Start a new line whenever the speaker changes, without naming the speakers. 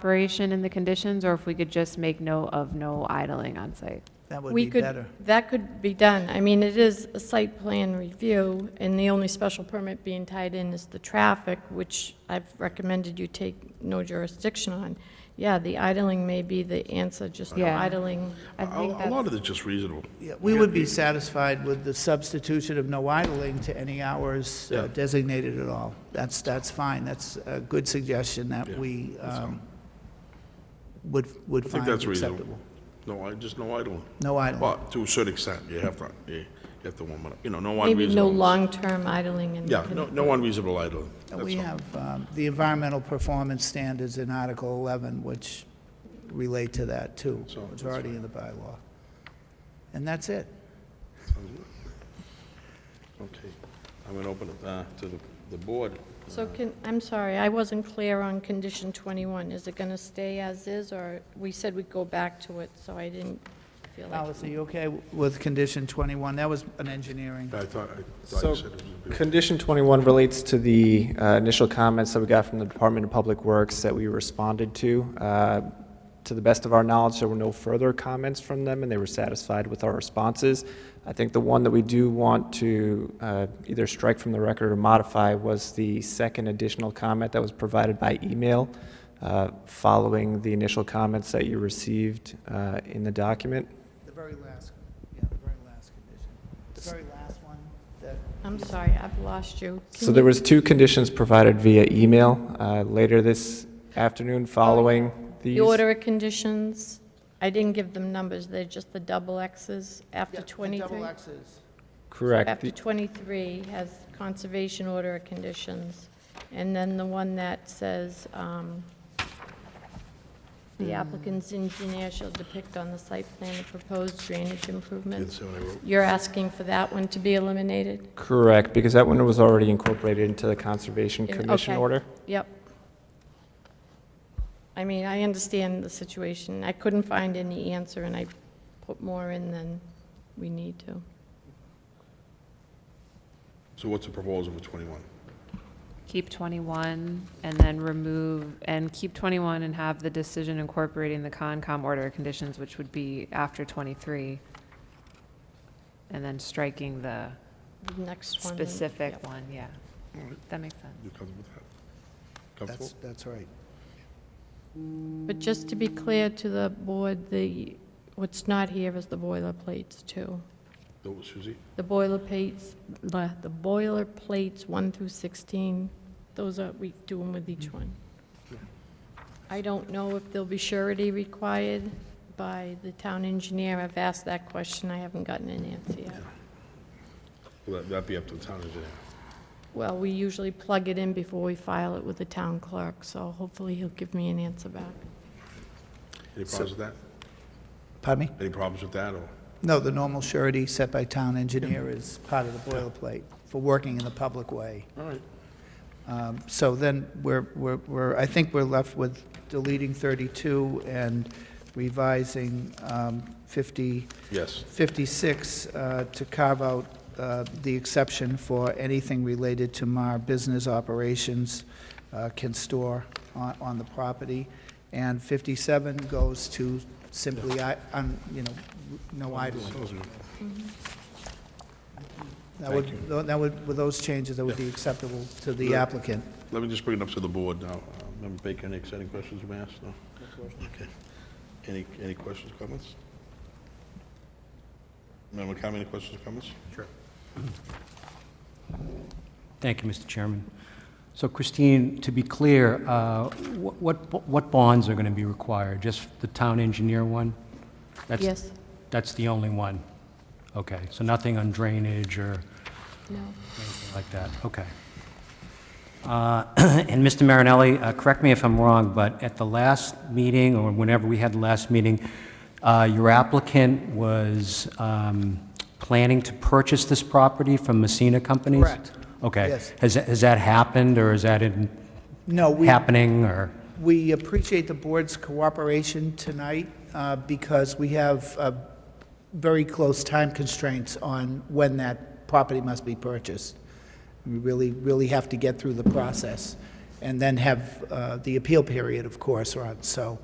operation and the conditions, or if we could just make note of no idling on site.
That would
We
be
could,
better.
that could be done. I mean, it is a site plan review, and the only special permit being tied in is the traffic, which I've recommended you take no jurisdiction on. Yeah, the idling may be the answer, just no
Yeah.
idling.
I
A
think
a
that's.
lot of it's just reasonable.
Yeah, We would be satisfied with the substitution of no idling to any hours uh,
Yeah.
designated at all. That's, that's fine, that's a good suggestion that
Yeah,
we um, would, would
I think
find
that's reasonable.
acceptable.
No, I, just no idling.
No idling.
But to a certain extent, you have to, you have to warm it up, you know, no
Maybe
unreasonable.
no long-term idling in the
Yeah, no, no unreasonable idling,
And
that's
We
all.
have um, the environmental performance standards in Article 11, which relate to that too,
So,
which
that's
are already in the bylaw. And that's it.
Okay, I'm gonna open it uh, to the, the board.
So can, I'm sorry, I wasn't clear on condition 21. Is it going to stay as is, or we said we'd go back to it, so I didn't feel like.
Alice, are you okay with condition 21? That was an engineering.
I thought, I thought
So,
you said it was. a bit-
condition 21 relates to the uh, initial comments that we got from the Department of Public Works that we responded to. Uh, To the best of our knowledge, there were no further comments from them, and they were satisfied with our responses. I think the one that we do want to uh, either strike from the record or modify was the second additional comment that was provided by email uh, following the initial comments that you received uh, in the document.
The very last, yeah, the very last condition. The very last one that.
I'm sorry, I've lost you.
So
Can
there
you-
was two conditions provided via email uh, later this afternoon following these.
The order of conditions, I didn't give them numbers, they're just the double Xs after 23.
double X's.
Correct.
After
The-
23 has conservation order of conditions, and then the one that says, um, "The applicant's engineer shall depict on the site plan the proposed drainage
Didn't
improvements."
say what I wrote.
You're asking for that one to be eliminated?
Correct, because that one was already incorporated into the Conservation
In-
Commission
okay.
order.
Yep. I mean, I understand the situation. I couldn't find any answer, and I put more in than we need to.
So what's the proposal for 21?
Keep 21 and then remove, and keep 21 and have the decision incorporating the Concom order of conditions, which would be after 23. And then striking the
The Next one. and-
specific
yep.
one, yeah. That makes sense.
You comfortable with that? Comfortable?
That's, that's right.
But just to be clear to the board, the, what's not here is the boilerplates, too.
Those, Suzie?
The boilerplates, the the boilerplates 1 through 16, those are, we do them with each one. I don't know if there'll be surety required by the town engineer. I've asked that question, I haven't gotten an answer yet.
Will that- that be up to the town engineer?
Well, we usually plug it in before we file it with the town clerk, so hopefully he'll give me an answer back.
Any problems with that?
Pardon me?
Any problems with that, or?
No, the normal surety set by town engineer is part of the boilerplate for working in the public way.
All right.
Um, So then we're, we're, we're, I think we're left with deleting 32 and revising um, 50,
Yes.
56 uh, to carve out uh, the exception for anything related to MAR business operations uh, can store on, on the property. And 57 goes to simply, I, un- you know, no idling. That would, that would, with those changes, that would be acceptable to the
Yeah.
applicant.
Let me just bring it up to the board now. Uh, Member Baker, any exciting questions you may ask? No? Okay. Any, any questions, comments? Member Conley, any questions, comments? Sure.
Thank you, Mr. Chairman. So Christine, to be clear, uh, wh- what what bonds are going to be required? Just the town engineer one? That's-
Yes?
That's the only one? Okay, so nothing on drainage or
No?
anything like that? Okay. Uh, And Mr. Marinelli, uh, correct me if I'm wrong, but at the last meeting, or whenever we had the last meeting, uh, your applicant was um, planning to purchase this property from Messina Companies?
Correct.
Okay.
Yes.
Has that- has that happened, or is that in-
No, we,
happening, or?
we appreciate the board's cooperation tonight uh, because we have uh, very close time constraints on when that property must be purchased. We really, really have to get through the process. and then have uh, the appeal period, of course, run. So